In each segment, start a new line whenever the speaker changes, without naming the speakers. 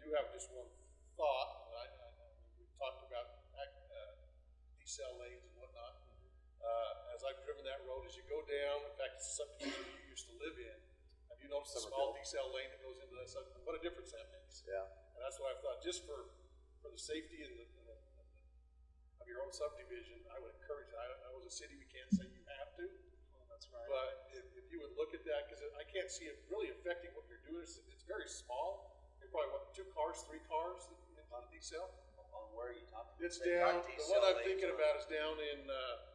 do have just one thought, but I, I, I mean, we've talked about, uh, decel lanes and whatnot. Uh, as I've driven that road, as you go down, in fact, it's a subdivision that you used to live in, have you noticed a small decel lane that goes into that sub, what a difference that makes?
Yeah.
And that's why I thought, just for, for the safety and the, and the, and the- of your own subdivision, I would encourage, it. I, I was a city, we can't say you have to. That's right. But if, if you would look at that, cause I can't see it really affecting what you're doing, it's, it's very small. You're probably, what, two cars, three cars in on the decel?
On where are you talking?
It's
They
down,
got
the
these
one
cell
I'm
lanes
thinking
on-
about is down in, uh,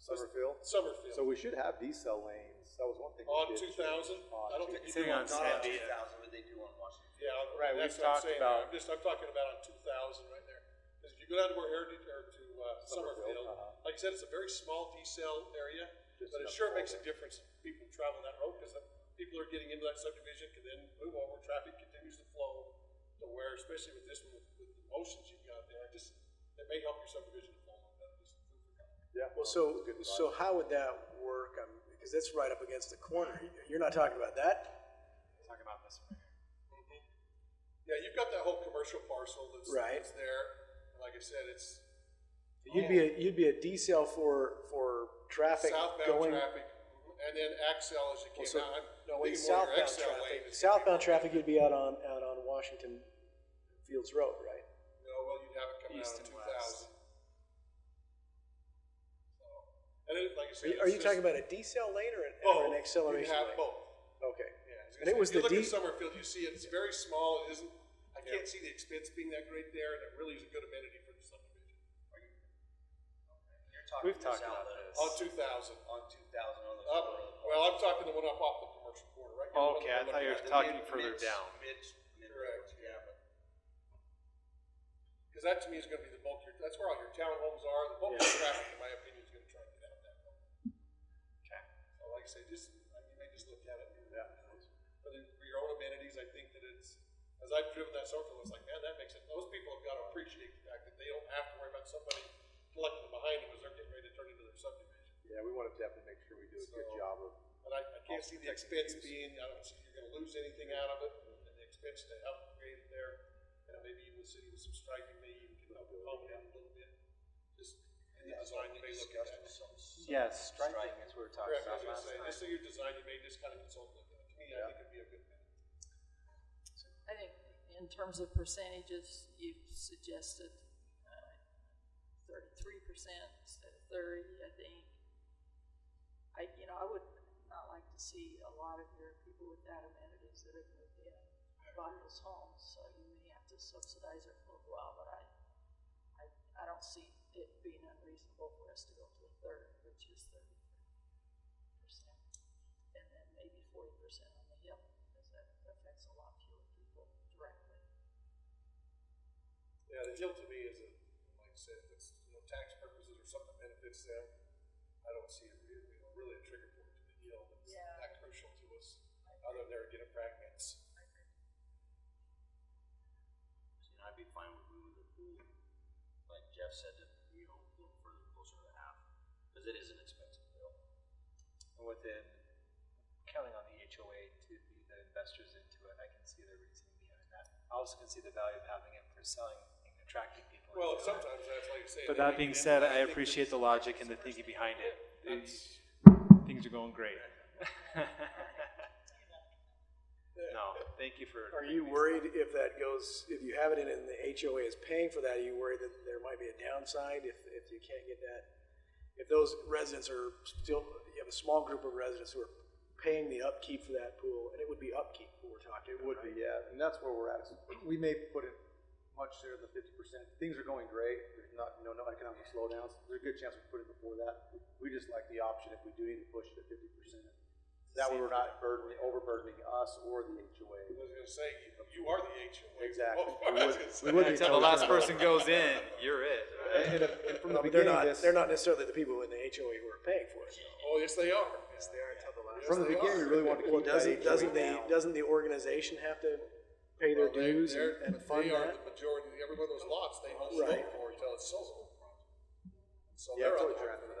Summerfield. So
Summerfield,
we should have decel lanes. That was one thing. we
on
did
two
change.
thousand,
On
I don't
two-
think you
Sitting
do
on
on
Sandia.
Not on two thousand, but they do on Washington.
Yeah,
Right,
that's
we've
what I'm
talked
saying.
about-
I'm just, I'm talking about on two thousand right there. Because if you go down to where Heritage, or to uh,
Summerfield,
Summerfield,
uh-huh.
like I said, it's a very small decel area,
Just
but it
enough
sure makes a
forward.
difference if people travel that road, because people are getting into that subdivision, can then move over, traffic continues to flow to where, especially with this one, with, with the motions you've got there, just, it may help your subdivision to flow a little better, just food for thought.
Yeah.
Well, so,
that's a good
so
thought.
how would that work? Um, because that's right up against the corner. You're not talking about that?
Talk about this one.
Yeah, you've got that whole commercial parcel that's,
Right.
that's there, and like I said, it's
You'd be, a you'd be a decel for, for traffic
southbound
going.
traffic, and then Axel as you
Well,
came
so-
out, I'm
No, wait,
thinking more your
southbound
Axel lane.
traffic.
is-
Southbound traffic, you'd be out on, out on Washington Fields Road, right?
No, well, you'd have it coming out
East and
of two
west.
thousand. And it, like I
Are
said.
you- Are
it's
you
just-
talking about a decel lane or an-
Both.
or an acceleration
You
lane?
have both.
Okay.
Yeah, I
And
gonna
it was
say, if
the
you look
D-
at Summerfield, you see it's very small, it isn't, I can't see the expense being that great there, and it really is a good amenity for the subdivision.
You're talking
We've
this
talked about
outlet
this.
On two thousand,
On two thousand on the.
up, well, I'm talking the one up off the commercial corner, right? here, the one
Oh, Okay,
that
I
we're
thought you
looking
were talking further
at.
down.
Mid, mid,
Correct,
yeah, but
Because that to me is going to be the bulk of your, that's where all your townhomes are, the bulk of your traffic, in my opinion, is going to try to get out that way.
Okay.
So like I say, just, I mean, you may just look at it. and-
Yeah.
But then for your own amenities, I think that it's, as I've driven that circle, it's like, man, that makes it, those people have got to appreciate the fact that they don't have to worry about somebody collecting behind them as they're getting ready to turn into their subdivision.
Yeah, we want to definitely make sure we do a good
So-
job of.
But I, I can't see the expense being, I don't see you're gonna lose anything out of it, and the expense to upgrade it there, and maybe even the city with some striping, maybe even can help accommodate it a little bit. Just in the
that's
design,
what we
you may look at
discussed
that.
with some. some
Yes, striping
striping.
is what we were talking
Correct, I
about
was gonna
last
say,
night.
just in your design, you may just kind of consult with that. To me, I think it'd be a good thing.
I think in terms of percentages, you've suggested uh, thirty-three percent instead of thirty, I think. I, you know, I would not like to see a lot of your people without amenities that have moved in, bought those homes, so you may have to subsidize it for a little while, but I, I, I don't see it being unreasonable for us to go to a third, which is thirty percent. And then maybe forty percent on the hill, because that affects a lot fewer people directly.
Yeah, the deal to me is, that, like I said, if it's, you know, tax purposes or something benefits them, I don't see it really, you know, really a trigger point to the deal that's
Yeah.
that crucial to us, other than they're getting fragments.
And I'd be fine with moving the pool, like Jeff said, to, you know, a little further closer to half, because it is an expensive bill.
And within counting on the HOA to be the investors into it, I can see the reasoning behind that. I also can see the value of having it for selling and attracting people.
Well,
into it.
sometimes that's like saying.
But
they
that
make
being
it
said, I
in, think
appreciate the
that's-
logic and the thinking behind it.
That's-
Things are going great. No, thank you for.
Are you worried if that goes, if you have it in and the HOA is paying for that, are you worried that there might be a downside if, if you can't get that? If those residents are still, you have a small group of residents who are paying the upkeep for that pool, and it would be upkeep what we're talking
It
about,
would
right?
be, yeah, and that's where we're at. We may put it much sooner than fifty percent. Things are going great. There's not, you know, no economic slowdowns. There's a good chance we put it before that. We just like the option if we do need to push it to fifty percent. That way we're not burdening, overburdening us or the
I
HOA.
was gonna say, you- you are the HOA.
Exactly.
Well,
We
I was
would-
gonna say,
we would be
Until the last
totally-
person goes in, you're it, right?
And, if- and from
No,
the
but they're
beginning,
not,
this.
they're not necessarily the people in the HOA who are paying for it.
Oh, yes, they are. Yes, they are
From the beginning, we really wanted to
Well,
keep that
doesn't, doesn't
HOA
the,
down.
doesn't the organization have to pay their dues and and fund
They are
that?
the majority, every one of those lots, they own
Right.
vote for until it's sold. So they're
Yeah, it's
on
always
the hook for
transferred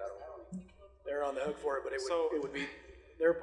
that.
that over.
They're on the hook for it, but it
So-
would, it would be, they're,